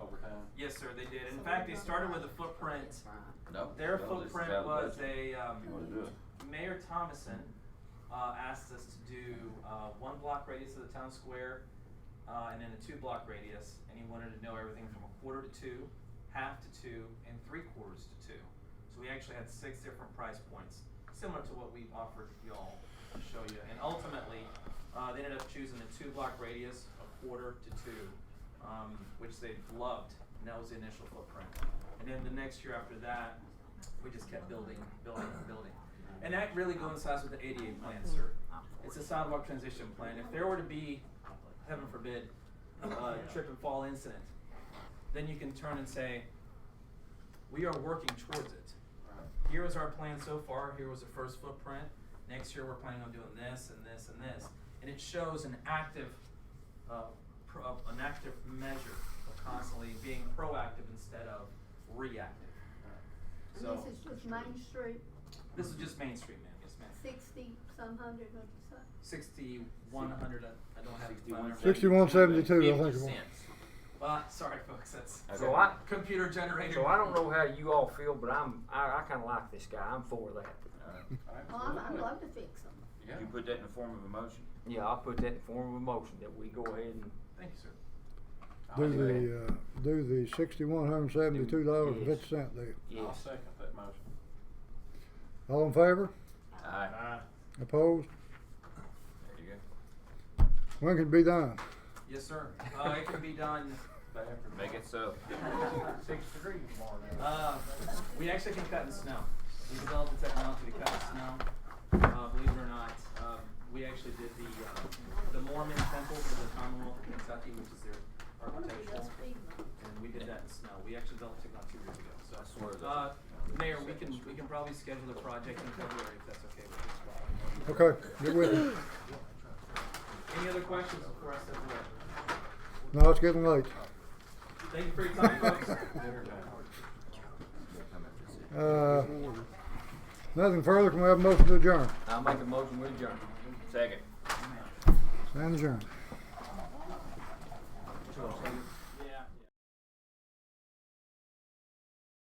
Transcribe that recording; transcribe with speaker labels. Speaker 1: overtime?
Speaker 2: Yes, sir, they did. In
Speaker 3: So
Speaker 2: fact,
Speaker 3: we
Speaker 2: they
Speaker 3: don't
Speaker 2: started
Speaker 3: know
Speaker 2: with a
Speaker 3: where
Speaker 2: footprint.
Speaker 3: it's from.
Speaker 1: No.
Speaker 2: Their
Speaker 1: no, this is
Speaker 2: footprint
Speaker 1: out of
Speaker 2: was a,
Speaker 1: budget.
Speaker 2: um,
Speaker 1: You wanna do it?
Speaker 2: Mayor Thomason, uh, asked us to do, uh, one block radius of the town square, uh, and then a two block radius, and he wanted to know everything from a quarter to two, half to two, and three quarters to two. So we actually had six different price points, similar to what we've offered y'all to show you, and ultimately, uh, they ended up choosing a two block radius, a quarter to two, um, which they loved, and that was the initial footprint. And then the next year after that, we just kept building, building, building. And that really coincides with the ADA plan, sir. It's a sidewalk transition plan. If there were to be, heaven forbid, a trip and fall incident, then you can turn and say, we are working towards it. Here is our plan so far. Here was the first footprint. Next year, we're planning on doing this and this and this. And it shows an active, uh, pro- uh, an active measure of constantly being proactive instead of reactive.
Speaker 3: And
Speaker 2: So,
Speaker 3: This is just Main Street,
Speaker 2: this is just Main Street, ma'am. Yes, ma'am.
Speaker 3: sixty, some hundred, what'd you say?
Speaker 2: Sixty-one hundred, I I don't have. it by memory.
Speaker 4: 61, 72, I think it was.
Speaker 2: 50 cents. Well, Uh, sorry, folks, that's.
Speaker 1: Okay.
Speaker 5: So I-
Speaker 2: Computer generated.
Speaker 5: So I don't know how you all feel, but I'm I, I kind of like this guy. I'm for that.
Speaker 1: Alright.
Speaker 3: Oh, I'm, I'd love to fix them.
Speaker 1: You put that in the form of a motion?
Speaker 5: Yeah, I'll put that in form of a motion that we go ahead and
Speaker 2: Thank you, sir.
Speaker 1: I'll
Speaker 4: Do
Speaker 1: do that.
Speaker 4: the, uh, do the sixty-one hundred seventy-two dollars and fifty cent deal.
Speaker 1: I'll
Speaker 5: yes.
Speaker 1: second that motion.
Speaker 4: All in favor?
Speaker 1: Aye.
Speaker 4: Opposed?
Speaker 1: There you
Speaker 4: When can it be done?
Speaker 2: Yes, sir. Uh, it can be done,
Speaker 1: go. Make it so.
Speaker 2: Six degrees tomorrow. Uh, we actually can cut in snow. We developed the technology to cut in snow. Uh, believe it or not, um, we actually did the, uh, the Mormon temple for the Commonwealth of Kentucky, which is their
Speaker 3: I wanna be
Speaker 2: architectural.
Speaker 3: those FEMA.
Speaker 2: And we did that in snow. We actually developed it not two years ago, so.
Speaker 1: I swear
Speaker 2: Uh,
Speaker 1: that-
Speaker 2: Mayor, we can, we can probably schedule the project in February if that's okay with you.
Speaker 4: Okay, get with it.
Speaker 2: Any other questions before I step away?
Speaker 4: No, it's getting late.
Speaker 2: Thank you for your time, folks.
Speaker 4: Uh, nothing further, can we have a motion to adjourn?
Speaker 5: I'll make a motion with adjourn.
Speaker 1: Second.
Speaker 4: Stand adjourned.